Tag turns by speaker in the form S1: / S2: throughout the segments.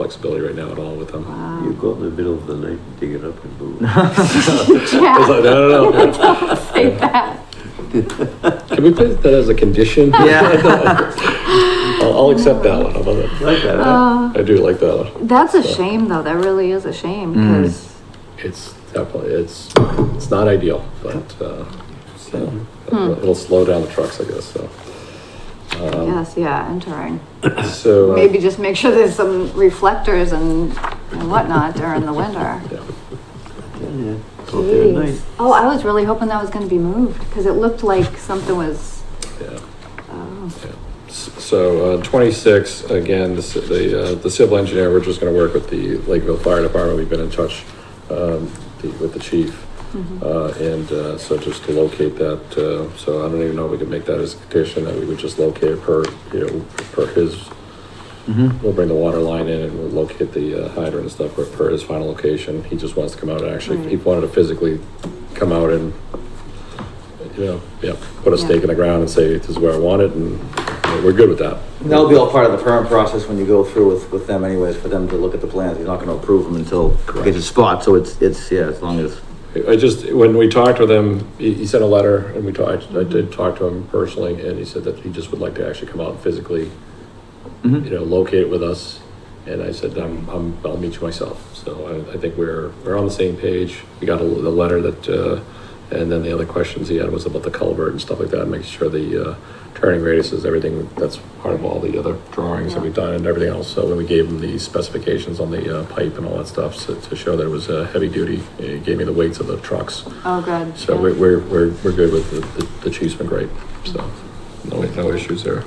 S1: flexibility right now at all with them.
S2: You go out in the middle of the night and dig it up and move.
S1: I was
S3: Yeah,
S1: like, no, no, no.
S3: say that.
S1: Can we put that as a condition?
S4: Yeah.
S1: I'll, I'll accept that one. How about that?
S2: Like that, huh?
S3: Uh,
S1: I do like that one.
S3: that's a shame though, that really is a shame,
S1: Mm.
S3: because,
S1: It's definitely, it's, it's not ideal, but, uh,
S2: Hmm.
S1: so, it'll it'll slow down the trucks, I guess, so.
S3: yes, yeah, entering.
S1: So. Um, uh,
S3: Maybe just make sure there's some reflectors and and whatnot during the winter.
S1: yeah.
S2: Yeah, Go out there at night.
S3: Jeez. Oh, I was really hoping that was gonna be moved, because it looked like something was,
S1: Yeah.
S3: oh,
S1: Yeah. S- So uh, 26, again, the ci- the uh, the civil engineer, we're just going to work with the Lakeville Fire Department. We've been in touch um, the- with the chief. Uh, And uh, so just to locate that, uh, so I don't even know if we could make that as a condition, that we would just locate it per, you know, per his, we'll bring the water line in and we'll locate the uh, hydrant and stuff per- per his final location. He just wants to come out and actually, he
S3: Right.
S1: wanted to physically come out and you know, yeah, put a
S3: Yeah.
S1: stake in the ground and say, this is where I want it, and you know, we're good with that.
S4: That'll be all part of the permit process when you go through with, with them anyways, for them to look at the plans. You're not gonna approve them until it gets a spot, so it's, it's, yeah, as long as.
S1: I just, when we talked with him, he, he sent a letter, and we talked, I did talk to him personally, and he said that he just would like to actually come out and physically, you know, locate with us, and I said, I'm, I'm, I'll meet you myself, so I, I think we're, we're on the same page. We got a, the letter that, uh, and then the other questions he had was about the culvert and stuff like that, and making sure the, uh, turning radius is everything, that's part of all the other drawings that we've done and everything else, so when we gave him the specifications on the, uh, pipe and all that stuff, so to show that it was, uh, heavy duty, he gave me the weights of the trucks,
S3: oh, good.
S1: so
S3: yeah.
S1: we're, we're, we're, we're good with the, the- the chief's been great, so, no, no issues there.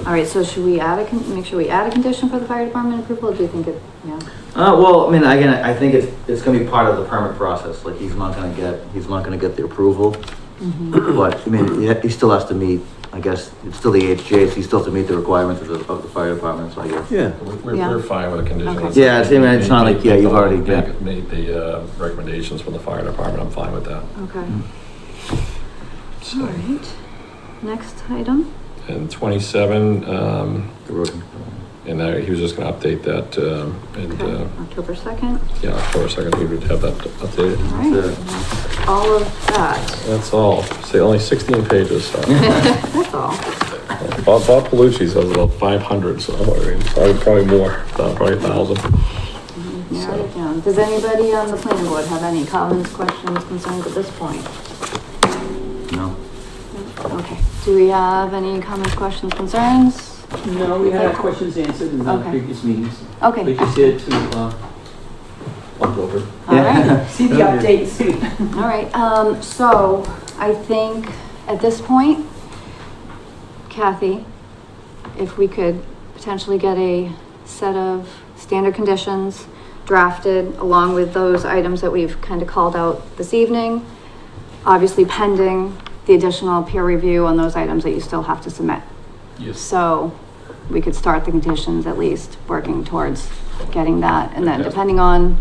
S3: All right, so should we add a, con- make sure we add a condition for the fire department approval, or do you think it, yeah?
S4: Uh, well, I mean, again, I think it's, it's gonna be part of the permit process. Like, he's not gonna get, he's not gonna get the approval.
S3: Mm-hmm.
S4: But, I mean, he, he still has to meet, I guess, it's still the HJ, so he still has to meet the requirements of the, of the fire department, so I guess.
S2: Yeah,
S1: We're, we're-
S3: Yeah.
S1: we're fine with the conditions.
S3: Okay.
S4: Yeah, it's- I mean, it's not like- yeah, you've already- yeah.
S1: Made- Made the, uh, recommendations from the fire department, I'm fine with that.
S3: Okay,
S4: Mm.
S3: all
S1: So,
S3: right. Next item?
S1: and twenty-seven, um,
S4: The road-
S1: and I, he was just gonna update that, um, and,
S3: Okay,
S1: uh,
S3: October second,
S1: yeah, October second, we would have that updated.
S3: all right.
S4: That's it.
S3: That's All of that,
S1: That's all, see, only sixteen pages, so.
S3: that's all.
S1: Bob, Bob Palucci's has about five hundred, so, I mean, probably, probably more, uh, probably a thousand.
S3: Narrowed it down. Does anybody on the planning board have any comments, questions, concerns at this point?
S4: No.
S3: Okay, do we have any comments, questions, concerns?
S5: No, we had our
S3: Okay.
S5: questions answered in the
S3: Okay.
S5: previous meetings.
S3: Okay,
S5: We're just here to, uh,
S4: Bump over.
S3: all right.
S6: See the updates.
S3: All right, um, so I think at this point, Kathy, if we could potentially get a set of standard conditions drafted along with those items that we've kind of called out this evening, obviously pending the additional peer review on those items that you still have to submit.
S1: Yes.
S3: So we could start the conditions at least, working towards getting that. And then
S1: Okay.
S3: depending on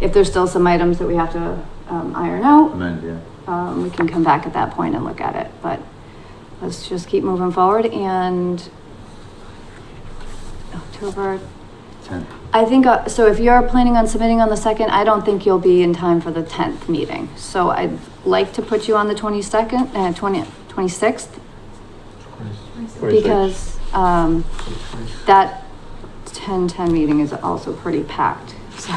S3: if there's still some items that we have to um, iron out,
S4: Amend, yeah.
S3: um, we can come back at that point and look at it. But let's just keep moving forward and October,
S4: Ten.
S3: I think, uh, so if you're planning on submitting on the second, I don't think you'll be in time for the tenth meeting. So I'd like to put you on the twenty-second, uh, twenty, twenty-sixth, because, um, that 10-10 meeting is also pretty packed, so.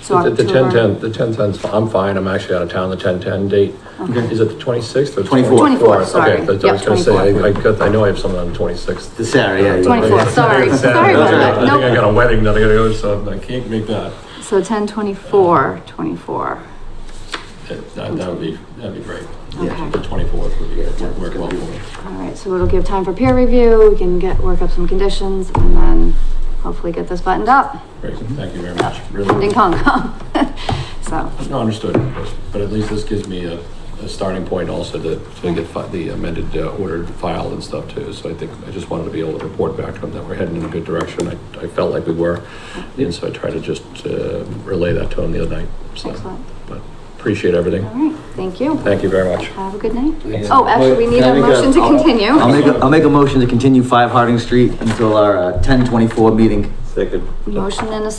S3: so
S1: The ten
S3: October-
S1: ten, the ten ten's, I'm fine, I'm actually out of town the ten ten date. Is it the twenty-sixth or?
S4: 24th.
S3: 24th, sorry.
S1: Okay, that's what I was
S3: Yep,
S1: gonna say, I, I
S3: 24th.
S1: got, I know I have something on the twenty-sixth.
S4: The Saturday, yeah. you-
S3: 24th, sorry, sorry about that,
S1: I think I
S3: nope.
S1: got a wedding that I gotta go to, so I can't make that.
S3: So 10-24, 24,
S1: That, that that would be, that'd be great.
S3: okay.
S1: The twenty-fourth would be, work work well for me.
S3: All right, so it'll give time for peer review, we can get, work up some conditions, and then hopefully get this buttoned up.
S1: Great, thank you very much, really.
S3: Ding dong. So,
S1: No, understood, but at least this gives me a, a starting point also to, to get fi- the amended uh, order filed and stuff too. So I think, I just wanted to be able to report back to them that we're heading in a good direction. I, I felt like we were. And so I tried to just, uh, relay that to them the other night, so.
S3: excellent,
S1: But appreciate everything.
S3: all right, thank you,
S1: Thank you very much.
S3: have a good night. Oh, actually, we need
S4: Can I
S3: a
S4: make a-
S3: motion to
S4: I'll-
S3: continue.
S4: I'll make, a- I'll make a motion to continue five Harding Street until our, uh, ten twenty-four meeting.
S2: Second.
S3: Motion and a